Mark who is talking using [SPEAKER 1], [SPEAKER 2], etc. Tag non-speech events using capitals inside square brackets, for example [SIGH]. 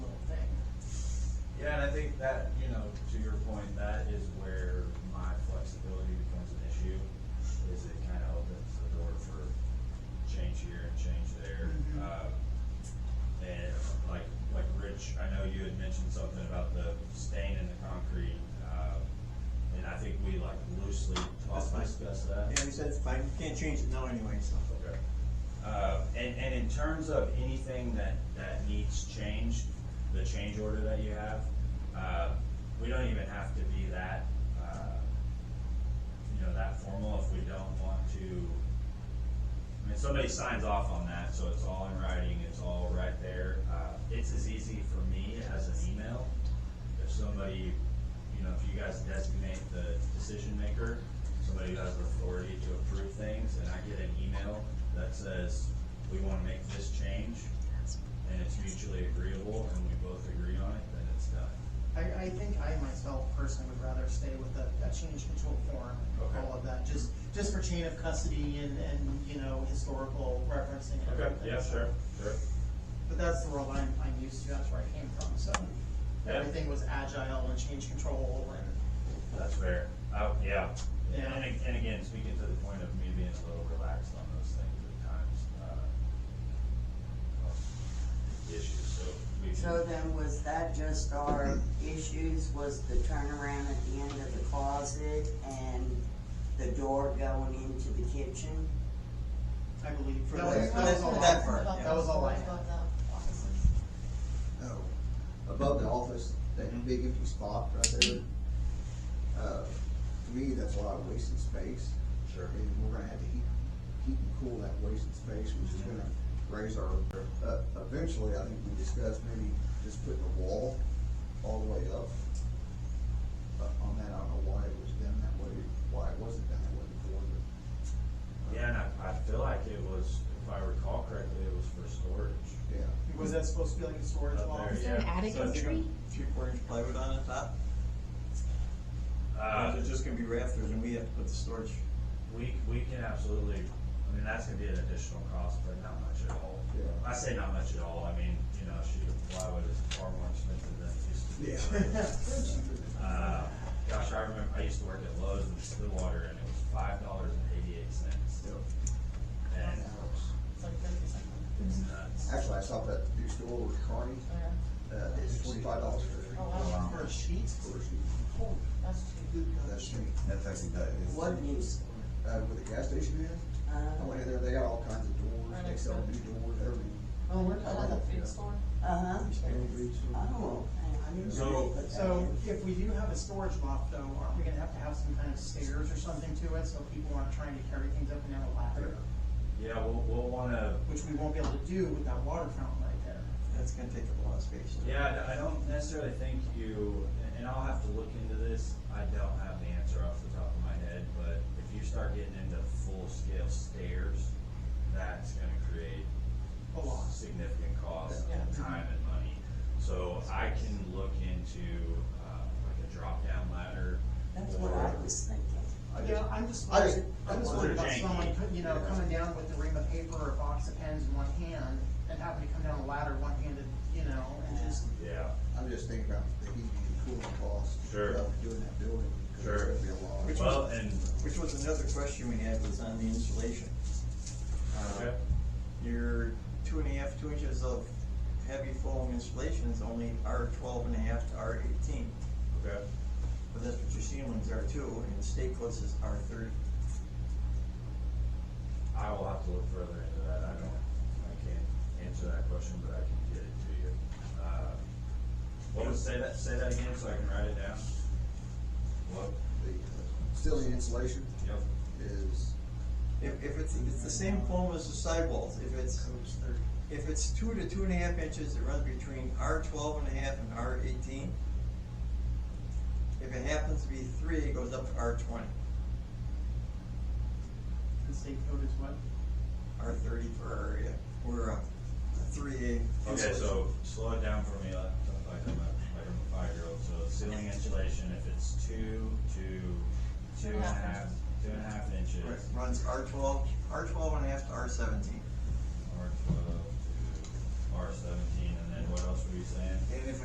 [SPEAKER 1] that, you know, to your point, that is where my flexibility becomes an issue, is it kind of opens the door for change here and change there.
[SPEAKER 2] Mhm.
[SPEAKER 1] Um, And like, like Rich, I know you had mentioned something about the stain in the concrete, uh, and I think we like loosely
[SPEAKER 3] That's
[SPEAKER 1] talked,
[SPEAKER 3] fine.
[SPEAKER 1] discussed that.
[SPEAKER 3] Yeah, we said it's fine, we can't change it now anyway, so.
[SPEAKER 1] Okay. Uh, and, and in terms of anything that, that needs change, the change order that you have, uh, we don't even have to be that, uh, you know, that formal if we don't want to. I mean, somebody signs off on that, so it's all in writing, it's all right there. Uh, it's as easy for me as an email. If somebody, you know, if you guys designate the decision maker, somebody who has the authority to approve things, and I get an email that says, we wanna make this change, and it's mutually agreeable, and we both agree on it, then it's done.
[SPEAKER 2] I, I think I myself personally would rather stay with a, a change control form,
[SPEAKER 1] Okay.
[SPEAKER 2] all of that, just, just for chain of custody and, and, you know, historical referencing and everything. so.
[SPEAKER 1] sure.
[SPEAKER 2] But that's the world I'm, I'm used to, that's where I came from, so
[SPEAKER 1] Yeah.
[SPEAKER 2] everything was agile and change control and,
[SPEAKER 1] That's fair. Oh, yeah.
[SPEAKER 2] Yeah.
[SPEAKER 1] And, and again, speaking to the point of me being a little relaxed on those things at times, uh, issues, so we can.
[SPEAKER 4] So then, was that just our issues, was the turnaround at the end of the closet and the door going into the kitchen?
[SPEAKER 2] I believe. for
[SPEAKER 3] That was-
[SPEAKER 2] that- that was all I-
[SPEAKER 3] that part, yeah.
[SPEAKER 2] That was all I had.
[SPEAKER 5] Above the offices.
[SPEAKER 6] Oh, above the office, that big empty spot right there. Uh, to me, that's a lot of wasted space.
[SPEAKER 1] Sure.
[SPEAKER 6] And we're gonna have to heat, heat and cool that wasted space, which is gonna raise our, uh, eventually, I think we discussed maybe just putting a wall all the way up. But on that, I don't know why it was done that way, why it wasn't done that way before, but. uh,
[SPEAKER 1] Yeah, and I, I feel like it was, if I recall correctly, it was for storage.
[SPEAKER 6] Yeah.
[SPEAKER 2] Was that supposed to be like a storage
[SPEAKER 1] Up
[SPEAKER 2] wall?
[SPEAKER 1] there,
[SPEAKER 5] Is there an
[SPEAKER 1] Yeah.
[SPEAKER 5] attic
[SPEAKER 3] So if you're
[SPEAKER 5] entry?
[SPEAKER 3] gonna- Three quarter inch plywood on the top,
[SPEAKER 1] Uh,
[SPEAKER 3] or is it just gonna be rafters and we have to put the storage?
[SPEAKER 1] we, we can absolutely, I mean, that's gonna be an additional cost, but not much at all.
[SPEAKER 6] Yeah.
[SPEAKER 1] I say not much at all, I mean, you know, shoot, plywood is far more expensive than
[SPEAKER 3] [LAUGHS]
[SPEAKER 1] it used to be. Uh, gosh, I remember, I used to work at Lowe's in Stillwater, and it was five dollars and eighty-eight cents.
[SPEAKER 6] Yep.
[SPEAKER 1] And it
[SPEAKER 5] It's like fifty something.
[SPEAKER 1] was nuts.
[SPEAKER 6] Actually, I saw that new store with Carney,
[SPEAKER 5] Oh, yeah.
[SPEAKER 6] uh, it's twenty-five dollars for.
[SPEAKER 5] Oh, wow.
[SPEAKER 2] For a sheet?
[SPEAKER 6] for a sheet.
[SPEAKER 2] Holy
[SPEAKER 5] That's cheap.
[SPEAKER 2] good God.
[SPEAKER 6] That's me. That's actually that is.
[SPEAKER 4] What news? Uh-huh.
[SPEAKER 6] Uh, where the gas station is, I went in there, they got all kinds of doors, they sell new doors, everything.
[SPEAKER 2] Oh, we're
[SPEAKER 5] Like
[SPEAKER 2] covered.
[SPEAKER 5] a food store?
[SPEAKER 4] Uh-huh.
[SPEAKER 6] Cambridge.
[SPEAKER 4] Oh, I didn't
[SPEAKER 1] So-
[SPEAKER 4] really put that
[SPEAKER 2] So
[SPEAKER 4] in.
[SPEAKER 2] if we do have a storage loft though, aren't we gonna have to have some kind of stairs or something to it, so people aren't trying to carry things up and down a ladder?
[SPEAKER 1] Yeah, we'll, we'll wanna,
[SPEAKER 2] Which we won't be able to do with that water fountain right there.
[SPEAKER 3] That's gonna take up a lot of space.
[SPEAKER 1] yeah, I I don't necessarily think you, and- and I'll have to look into this, I don't have the answer off the top of my head, but if you start getting into full-scale stairs, that's gonna create
[SPEAKER 2] A lot.
[SPEAKER 1] significant cost,
[SPEAKER 5] Yeah.
[SPEAKER 1] time and money. So I can look into, uh, like a drop-down ladder.
[SPEAKER 4] That's what
[SPEAKER 1] or-
[SPEAKER 4] I was thinking.
[SPEAKER 6] I
[SPEAKER 2] Yeah,
[SPEAKER 6] just-
[SPEAKER 2] I'm just
[SPEAKER 6] I just-
[SPEAKER 2] worried, I'm just worried about
[SPEAKER 1] Janky.
[SPEAKER 2] someone, put- you know,
[SPEAKER 6] Yeah.
[SPEAKER 2] coming down with a ream of paper or a box of pens in one hand and having to come down a ladder one-handed, you know, and just,
[SPEAKER 1] Yeah.
[SPEAKER 6] I'm just thinking about the heating and cooling costs.
[SPEAKER 1] Sure.
[SPEAKER 6] Of doing that building. 'cause
[SPEAKER 1] Sure.
[SPEAKER 6] It's gonna be a lot.
[SPEAKER 3] Which
[SPEAKER 1] Well,
[SPEAKER 3] was-
[SPEAKER 1] and,
[SPEAKER 3] Which was another question we had was on the insulation. Uh,
[SPEAKER 1] okay,
[SPEAKER 3] Your two and a half, two inches of heavy foam insulation is only R twelve and a half to R eighteen.
[SPEAKER 1] okay.
[SPEAKER 3] But that's what your ceilings are too, and the state code says R thirty.
[SPEAKER 1] I will have to look further into that, I don't, I can't answer that question, but I can get it to you. Uh, What was, say that, say that again so I can write it down? What,
[SPEAKER 6] The uh, ceiling insulation
[SPEAKER 1] yep,
[SPEAKER 6] is,
[SPEAKER 3] If, if it's, if it's the same foam as the sidewalls, if it's, if it's two to two and a half inches, it runs between R twelve and a half and R eighteen. If it happens to be three, it goes up to R twenty,
[SPEAKER 2] and state code is what?
[SPEAKER 3] R thirty for our area, we're a three A.
[SPEAKER 1] okay, so slow it down for me, like like I'm a, like I'm a five-year-old, so ceiling insulation, if it's two to two and a half, two and a half inches,
[SPEAKER 3] Right, Runs R twelve, R twelve and a half to R seventeen.
[SPEAKER 1] R twelve to R seventeen, and then what else were you saying?
[SPEAKER 3] It